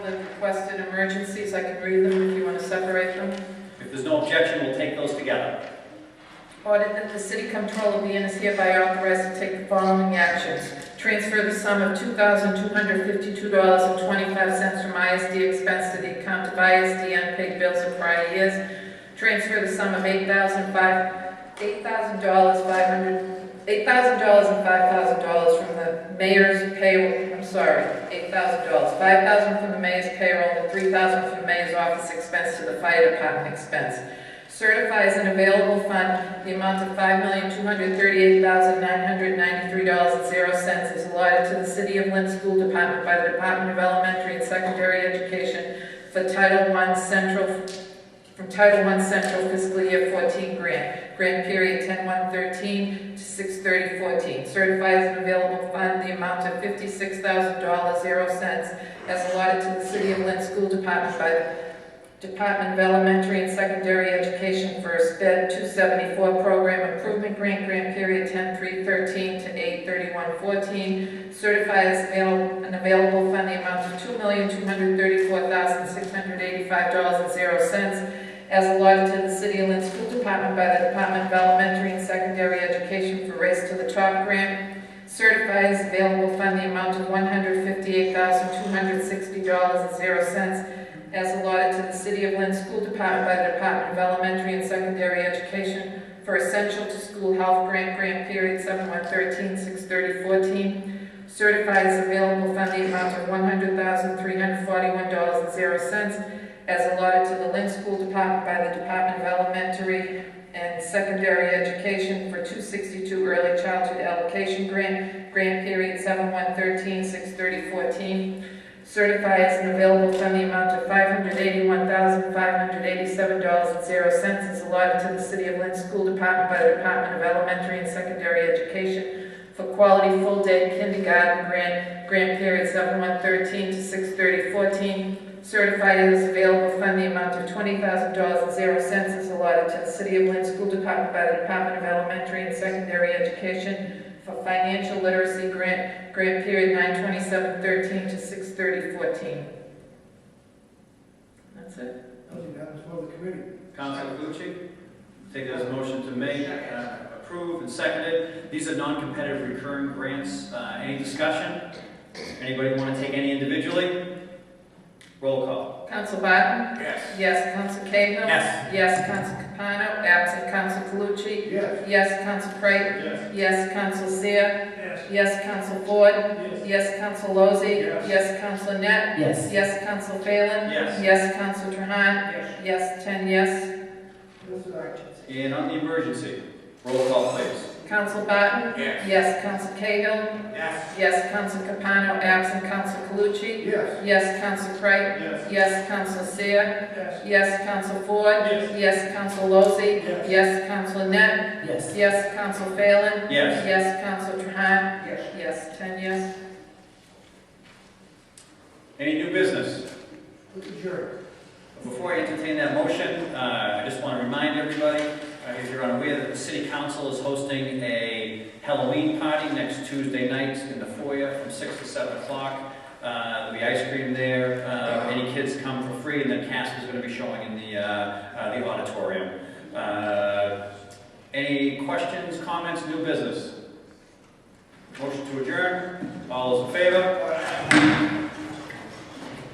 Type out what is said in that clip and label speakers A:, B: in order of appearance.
A: requested emergencies, I can read them if you want to separate them.
B: If there's no objection, we'll take those together.
A: Ordered that the city comptroller be and is hereby authorized to take the following actions. Transfer the sum of $2,252.25 from ISD expense to the account of ISD unpaid bills of prior years. Transfer the sum of $8,005, $8,000 and $5,000 from the mayor's payroll, I'm sorry, $8,000, $5,000 from the mayor's payroll, and $3,000 from the mayor's office expense to the fire department expense. Certifies an available fund, the amount of $5,238,993.00 is allotted to the City of Lynn School Department by the Department of Elementary and Secondary Education for Title I Central, from Title I Central Fiscal Year 14 grant, grant period 10/1/13 to 6/30/14. Certifies an available fund, the amount of $56,000.00 as allotted to the City of Lynn School Department by the Department of Elementary and Secondary Education for a SPED 274 Program Improvement Grant, grant period 10-3-13 to 8-31-14. Certify as avail- an available fund the amount of $2,234,685.00 as allotted to the City of Lynn School Department by the Department of Elementary and Secondary Education for Race to the Top Grant. Certify as available fund the amount of $158,260.00 as allotted to the City of Lynn School Department by the Department of Elementary and Secondary Education for Essential to School Health Grant, grant period 7113-63014. Certifies available funding amount of $100,341.00 as allotted to the Lynn School Department by the Department of Elementary and Secondary Education for 262 Early Childhood Allocation Grant, grant period 7113-63014. Certify as an available fund the amount of five hundred eighty-one thousand, five hundred eighty-seven dollars and zero cents is allotted to the City of Lynn School Department by the Department of Elementary and Secondary Education for quality full-day kindergarten grant, grant period seven one thirteen to six thirty fourteen. Certify as available fund the amount of twenty thousand dollars and zero cents is allotted to the City of Lynn School Department by the Department of Elementary and Secondary Education for financial literacy grant, Grant period nine twenty-seven thirteen to six thirty fourteen. That's it.
C: Those are matters for the committee.
B: Councilor Calucci, take it as a motion to make, uh, approve, and seconded. These are non-competitive recurring grants. Uh, Any discussion? Anybody want to take any individually? Roll call.
A: Council Barton?
B: Yes.
A: Yes. Council Cahill?
B: Yes.
A: Yes, Council Capano, absent Council Calucci?
C: Yes.
A: Yes, Council Creighton?
B: Yes.
A: Yes, Council Seer?
C: Yes.
A: Yes, Council Ford?
C: Yes.
A: Yes, Council Lozey?
C: Yes.
A: Yes, Council Net?
D: Yes.
A: Yes, Council Phelan?
B: Yes.
A: Yes, Council Trahan? Yes, ten yes.
C: Mr. Action.
B: And on the emergency, roll call, please.
A: Council Barton?
B: Yes.
A: Yes, Council Cahill?
B: Yes.
A: Yes, Council Capano, absent Council Calucci?
C: Yes.
A: Yes, Counsel Craig.
C: Yes.
A: Yes, Counsel Seer.
C: Yes.
A: Yes, Counsel Ford.
C: Yes.
A: Yes, Counsel Lozey.
C: Yes.
A: Yes, Counsel Net.
D: Yes.
A: Yes, Counsel Phelan.
B: Yes.
A: Yes, Counsel Trahan.
C: Yes.
A: Yes, ten yes.
B: Any new business?
C: Mr. Jerry.
B: Before I entertain that motion, uh, I just want to remind everybody, uh, if you're unaware, that the city council is hosting a Halloween party next Tuesday night in the foyer from six to seven o'clock. Uh, There'll be ice cream there, Uh, any kids come for free, and then Casper's going to be showing in the uh, uh, the auditorium. Uh, Any questions, comments, new business? Motion to adjourn, all those in favor?